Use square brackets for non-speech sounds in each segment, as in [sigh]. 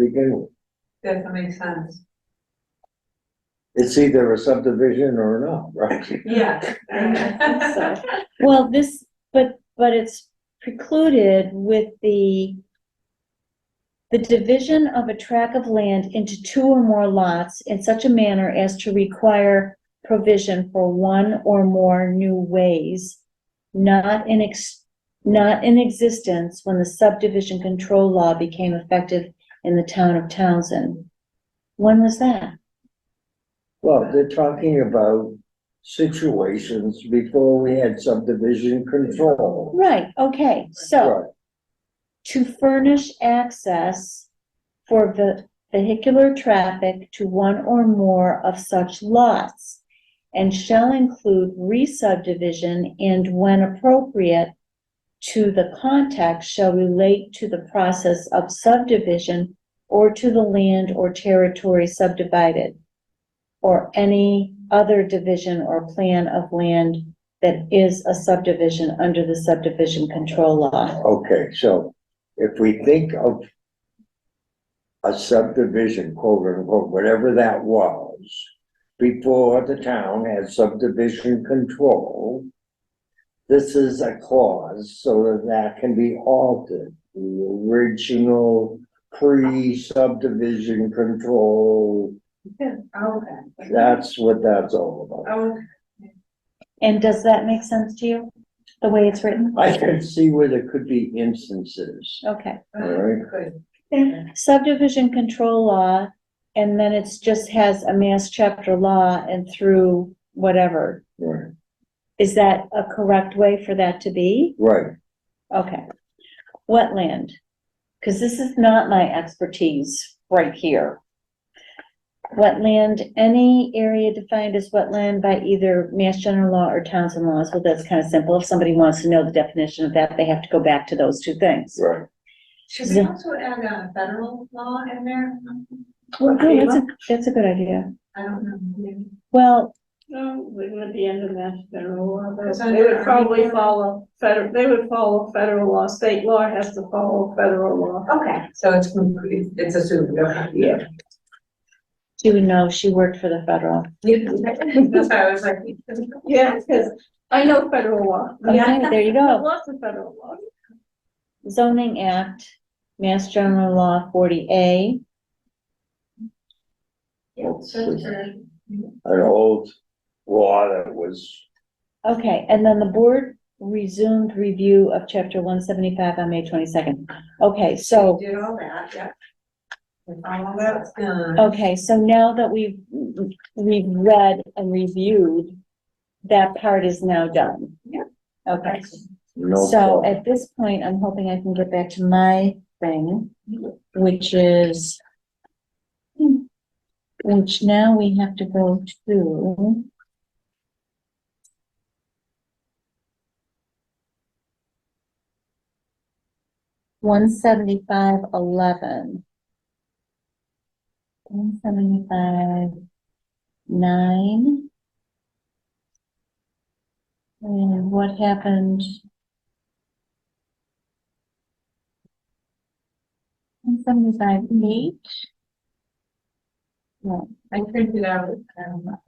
begin with. If that makes sense. It's either a subdivision or not, right? Yeah. [laughs] So, [laughs] Well, this, but, but it's precluded with the, the division of a tract of land into two or more lots in such a manner as to require provision for one or more new ways, not in ex, not in existence when the subdivision control law became effective in the town of Townsend. When was that? Well, they're talking about situations before we had subdivision control. Right, okay, so. Right. to furnish access for the vehicular traffic to one or more of such lots and shall include re-subdivision and when appropriate to the contact shall relate to the process of subdivision or to the land or territory subdivided or any other division or plan of land that is a subdivision under the subdivision control law. Okay, so if we think of a subdivision, quote unquote, whatever that was, before the town had subdivision control, this is a clause so that that can be altered. The original pre-subdivision control, Okay. that's what that's all about. Oh, And does that make sense to you, the way it's written? I can see where there could be instances. Okay. Alright. uh, good. Subdivision control law, and then it's just has a mass chapter law and through whatever. Right. Is that a correct way for that to be? Right, Okay. Wetland, because this is not my expertise right here. Wetland, any area defined as wetland by either mass general law or Townsend laws, well, that's kind of simple. If somebody wants to know the definition of that, they have to go back to those two things. right. Should we also add a federal law in there? Well, no, that's a, that's a good idea. I don't know, maybe. Well, no, wouldn't it be under mass general law? It's though? They under would probably Army. follow federal, they would follow federal law. State law has to follow federal law. Okay, so it's, it's assumed, okay. Yeah. do you know she worked for the federal? That's why I was like. Yeah, [laughs] because I know federal law. Okay, there you go. Lots of federal law. Zoning Act, Mass General Law forty A, It's Censored. an old law that was, okay, and then the board resumed review of chapter one seventy-five on May twenty-second. Okay, so, Did all that, yeah. All uh, of that's done. okay, so now that we've, we've read and reviewed, that part is now done. Yeah. Okay, no so problem. at this point, I'm hoping I can get back to my thing, which is which now we have to go to one seventy-five eleven. One seventy-five nine. And what happened? One seventy-five eight. I printed out, um,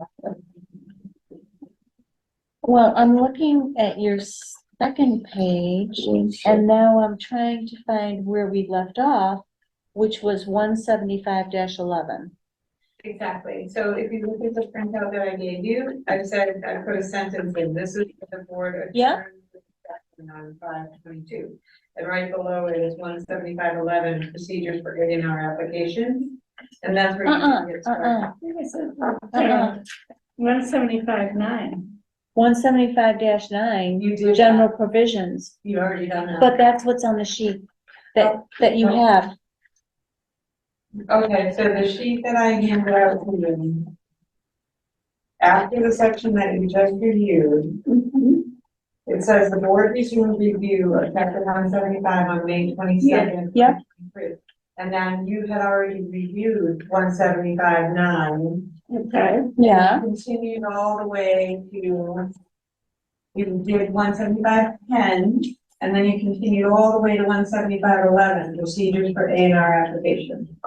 Well, I'm looking at your second page, One sec. and now I'm trying to find where we left off, which was one seventy-five eleven. Exactly, so if you look at the printout that I gave you, I said, I put a sentence in, this is what the board. Yeah. adjourned On five twenty-two, and right below it is one seventy-five eleven procedures for getting our application, and that's where you Uh-uh, can get started. uh-uh, Uh-uh. One seventy-five nine. one seventy-five nine, You did general that, provisions, you already done that. but that's what's on the sheet that, that you have. Okay, so the sheet that I handed out to you. After the section that you just reviewed. Mm-hmm. It says the board resumed review of chapter one seventy-five on May twenty-second. Yeah, And then you had already reviewed one seventy-five nine. Okay, Yeah, Continued all the way to. You did one seventy-five ten, and then you continued all the way to one seventy-five eleven, procedures for A and R application.